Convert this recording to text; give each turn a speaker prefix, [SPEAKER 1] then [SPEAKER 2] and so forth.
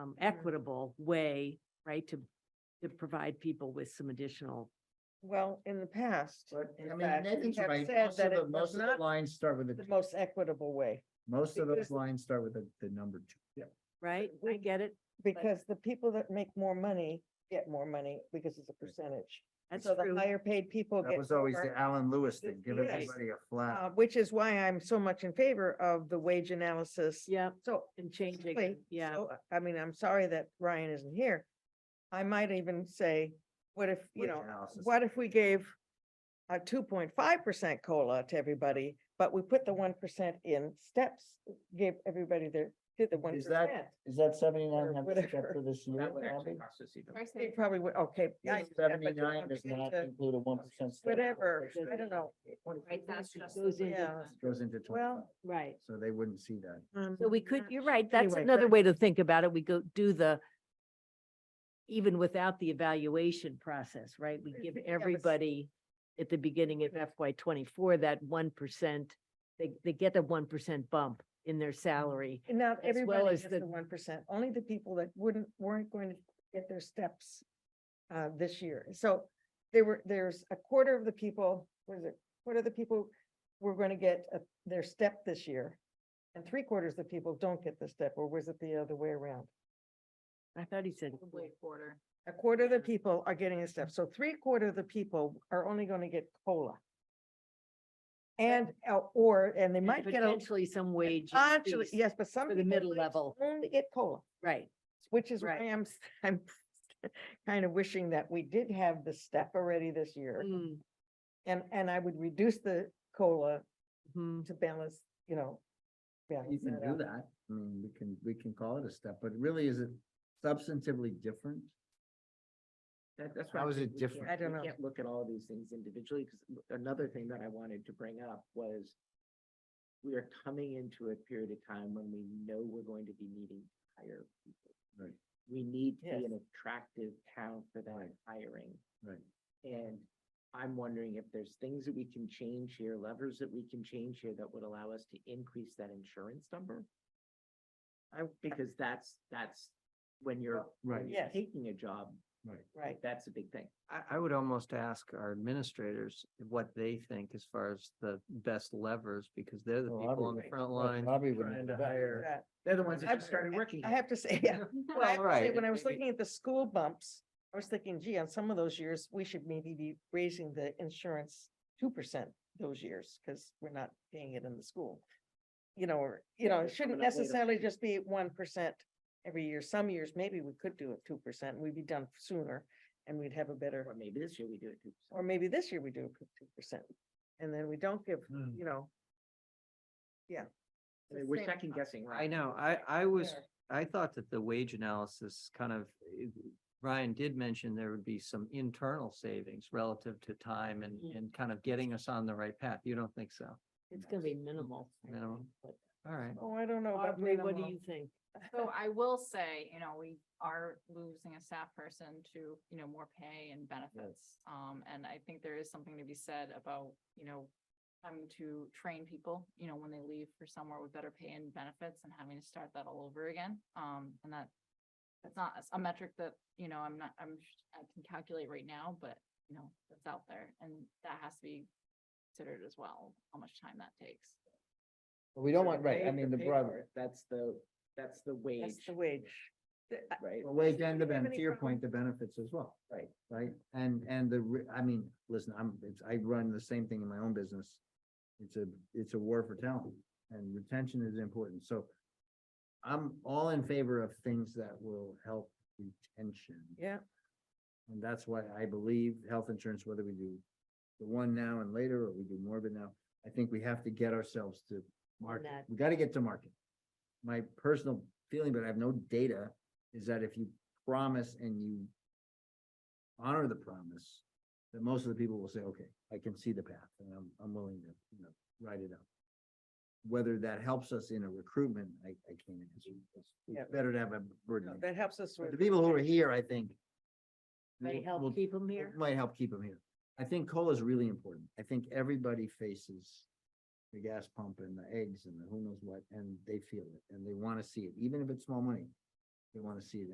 [SPEAKER 1] um, equitable way, right, to, to provide people with some additional.
[SPEAKER 2] Well, in the past,
[SPEAKER 3] But I
[SPEAKER 2] in
[SPEAKER 3] mean,
[SPEAKER 2] fact, we
[SPEAKER 3] Nathan's
[SPEAKER 2] have
[SPEAKER 3] right,
[SPEAKER 2] said
[SPEAKER 3] most
[SPEAKER 2] that
[SPEAKER 3] of the,
[SPEAKER 2] it
[SPEAKER 3] most
[SPEAKER 2] was
[SPEAKER 3] of the
[SPEAKER 2] not
[SPEAKER 3] lines start with
[SPEAKER 2] the
[SPEAKER 3] the,
[SPEAKER 2] most equitable way,
[SPEAKER 3] most of
[SPEAKER 2] because-
[SPEAKER 3] those lines start with the, the number two. Yeah.
[SPEAKER 1] Right, I get it.
[SPEAKER 2] because the people that make more money get more money because it's a percentage.
[SPEAKER 1] That's
[SPEAKER 2] So the
[SPEAKER 1] true.
[SPEAKER 2] higher paid people
[SPEAKER 3] That
[SPEAKER 2] get,
[SPEAKER 3] was always the
[SPEAKER 2] more,
[SPEAKER 3] Alan Lewis thing, give
[SPEAKER 2] Yes.
[SPEAKER 3] everybody a
[SPEAKER 2] uh,
[SPEAKER 3] flat.
[SPEAKER 2] which is why I'm so much in favor of the wage analysis.
[SPEAKER 1] Yeah,
[SPEAKER 2] So
[SPEAKER 1] and changing,
[SPEAKER 2] Wait,
[SPEAKER 1] yeah,
[SPEAKER 2] so, I mean, I'm sorry that Ryan isn't here. I might even say, what if, you
[SPEAKER 3] wage
[SPEAKER 2] know,
[SPEAKER 3] analysis.
[SPEAKER 2] what if we gave a two point five percent COLA to everybody, but we put the one percent in steps, gave everybody their, did the one
[SPEAKER 3] Is that-
[SPEAKER 2] percent.
[SPEAKER 3] Is that seventy-nine
[SPEAKER 2] or
[SPEAKER 3] hundred step
[SPEAKER 2] whatever.
[SPEAKER 3] for this year?
[SPEAKER 4] That would actually
[SPEAKER 3] Abby?
[SPEAKER 4] cost us even.
[SPEAKER 2] They probably would, okay. yeah, I understand, but the
[SPEAKER 3] Seventy-nine does
[SPEAKER 2] 1%
[SPEAKER 3] not
[SPEAKER 2] to
[SPEAKER 3] include a one percent.
[SPEAKER 2] Whatever, I don't know.
[SPEAKER 5] Right, that's just.
[SPEAKER 1] Goes in.
[SPEAKER 2] Yeah.
[SPEAKER 3] Goes into twenty-five,
[SPEAKER 2] Well,
[SPEAKER 1] right.
[SPEAKER 3] so they wouldn't see that.
[SPEAKER 2] um,
[SPEAKER 1] So we could, you're right, that's
[SPEAKER 2] Anyway,
[SPEAKER 1] another
[SPEAKER 2] but-
[SPEAKER 1] way to think about it. We go do the, even without the evaluation process, right? We give
[SPEAKER 2] Yeah, but-
[SPEAKER 1] everybody at the beginning of FY twenty-four, that one percent, they, they get a one percent bump in their salary.
[SPEAKER 2] And not
[SPEAKER 1] well
[SPEAKER 2] everybody
[SPEAKER 1] as
[SPEAKER 2] gets the
[SPEAKER 1] the-
[SPEAKER 2] one percent, only the people that wouldn't, weren't going to get their steps uh, this year. So there were, there's a quarter of the people, what is it, quarter of the people were going to get uh, their step this year. And three quarters of the people don't get the step, or was it the other way around?
[SPEAKER 1] I thought he said,
[SPEAKER 5] Quarter.
[SPEAKER 2] A quarter of the people are getting a step, so three quarter of the people are only going to get COLA. And, uh, or, and they might get a,
[SPEAKER 1] potentially some wage.
[SPEAKER 2] actually,
[SPEAKER 1] increase
[SPEAKER 2] yes, but some.
[SPEAKER 1] For the
[SPEAKER 2] people
[SPEAKER 1] middle
[SPEAKER 2] might
[SPEAKER 1] level,
[SPEAKER 2] Only get COLA.
[SPEAKER 1] right.
[SPEAKER 2] Which is why
[SPEAKER 1] Right.
[SPEAKER 2] I'm, s- I'm kind of wishing that we did have the step already this year.
[SPEAKER 1] Mm,
[SPEAKER 2] And, and I would reduce the COLA
[SPEAKER 1] mhm.
[SPEAKER 2] to balance, you know.
[SPEAKER 3] You
[SPEAKER 2] balance
[SPEAKER 3] can
[SPEAKER 2] that
[SPEAKER 3] do
[SPEAKER 2] out.
[SPEAKER 3] that. I mean, we can, we can call it a step, but really, is it substantively different?
[SPEAKER 4] That, that's.
[SPEAKER 3] How is it different?
[SPEAKER 2] I don't know.
[SPEAKER 4] Can't look at all these things individually, because another thing that I wanted to bring up was we are coming into a period of time when we know we're going to be needing to hire people.
[SPEAKER 3] Right.
[SPEAKER 4] We need to be
[SPEAKER 2] Yes.
[SPEAKER 4] an attractive town for that
[SPEAKER 3] Right.
[SPEAKER 4] hiring.
[SPEAKER 3] Right.
[SPEAKER 4] And I'm wondering if there's things that we can change here, levers that we can change here that would allow us to increase that insurance number? I, because that's, that's when you're,
[SPEAKER 3] Right.
[SPEAKER 4] when you're
[SPEAKER 2] Yes.
[SPEAKER 4] taking a job,
[SPEAKER 3] Right.
[SPEAKER 2] Right.
[SPEAKER 4] that's a big thing.
[SPEAKER 6] I, I would almost ask our administrators what they think as far as the best levers, because they're the
[SPEAKER 3] Well,
[SPEAKER 6] people on the
[SPEAKER 3] obviously,
[SPEAKER 6] front
[SPEAKER 3] Well,
[SPEAKER 6] line.
[SPEAKER 3] Bobby would
[SPEAKER 6] trying
[SPEAKER 3] know
[SPEAKER 6] to
[SPEAKER 3] that.
[SPEAKER 6] hire.
[SPEAKER 2] That-
[SPEAKER 4] They're the ones that
[SPEAKER 2] I've-
[SPEAKER 4] just started working.
[SPEAKER 2] I
[SPEAKER 4] here.
[SPEAKER 2] have to say, yeah. Well, I have to say,
[SPEAKER 6] right,
[SPEAKER 2] When I
[SPEAKER 6] it
[SPEAKER 2] was
[SPEAKER 6] may be-
[SPEAKER 2] looking at the school bumps, I was thinking, gee, on some of those years, we should maybe be raising the insurance two percent those years, because we're not paying it in the school. You know, or, you know, it
[SPEAKER 4] they're coming
[SPEAKER 2] shouldn't
[SPEAKER 4] up later.
[SPEAKER 2] necessarily just be one percent every year. Some years, maybe we could do it two percent, we'd be done sooner, and we'd have a better,
[SPEAKER 4] Or maybe this year we do it too.
[SPEAKER 2] or maybe this year we do two percent. And then we don't give,
[SPEAKER 3] Hmm.
[SPEAKER 2] you know. Yeah.
[SPEAKER 4] I mean, We're second guessing, right?
[SPEAKER 6] I know, I, I was,
[SPEAKER 2] Fair.
[SPEAKER 6] I thought that the wage analysis kind of, eh, Ryan did mention there would be some internal savings relative to time and,
[SPEAKER 3] Mm-hmm.
[SPEAKER 1] Mhm.
[SPEAKER 6] and kind of getting us on the right path. You don't think so?
[SPEAKER 1] It's gonna be minimal. I think,
[SPEAKER 6] Minimal.
[SPEAKER 1] but-
[SPEAKER 6] All right.
[SPEAKER 2] Oh, I don't know about
[SPEAKER 1] Aubrey, what do
[SPEAKER 2] minimal.
[SPEAKER 1] you think?
[SPEAKER 5] So I will say, you know, we are losing a staff person to, you know, more pay and benefits. Um, and I think there is something to be said about, you know, having to train people, you know, when they leave for somewhere with better pay and benefits and having to start that all over again. Um, and that that's not a metric that, you know, I'm not, I'm, sh- I can calculate right now, but, you know, that's out there and that has to be considered as well, how much time that takes.
[SPEAKER 3] But We don't
[SPEAKER 4] So
[SPEAKER 3] want, right,
[SPEAKER 4] pay-
[SPEAKER 3] I mean, the
[SPEAKER 4] pay
[SPEAKER 3] brother.
[SPEAKER 4] for it, That's the, that's the
[SPEAKER 2] That's
[SPEAKER 4] wage,
[SPEAKER 2] the wage. The- I-
[SPEAKER 4] right?
[SPEAKER 3] Well, wage and the,
[SPEAKER 2] Do you have
[SPEAKER 3] ben- to
[SPEAKER 2] any
[SPEAKER 3] your
[SPEAKER 2] problem?
[SPEAKER 3] point, the benefits as well.
[SPEAKER 4] Right.
[SPEAKER 3] Right, and, and the, re- I mean, listen, I'm, it's, I run the same thing in my own business. It's a, it's a war for talent, and retention is important, so. I'm all in favor of things that will help retention.
[SPEAKER 2] Yeah.
[SPEAKER 3] And that's why I believe health insurance, whether we do the one now and later, or we do more of it now, I think we have to get ourselves to market.
[SPEAKER 1] that.
[SPEAKER 3] We gotta get to market. My personal feeling, but I have no data, is that if you promise and you honor the promise, that most of the people will say, okay, I can see the path and I'm, I'm willing to, you know, write it out. Whether that helps us in a recruitment, I, I can't answer. It's-
[SPEAKER 2] Yeah.
[SPEAKER 3] It's better to have a
[SPEAKER 2] No,
[SPEAKER 3] burden.
[SPEAKER 2] That helps us.
[SPEAKER 3] But
[SPEAKER 2] with-
[SPEAKER 3] the people who are here, I think.
[SPEAKER 1] May
[SPEAKER 3] will-
[SPEAKER 1] help
[SPEAKER 3] will-
[SPEAKER 1] keep them
[SPEAKER 3] it
[SPEAKER 1] here?
[SPEAKER 3] Might help keep them here. I think cola is really important. I think everybody faces the gas pump and the eggs and the who knows what, and they feel it, and they want to see it, even if it's small money. they want to see it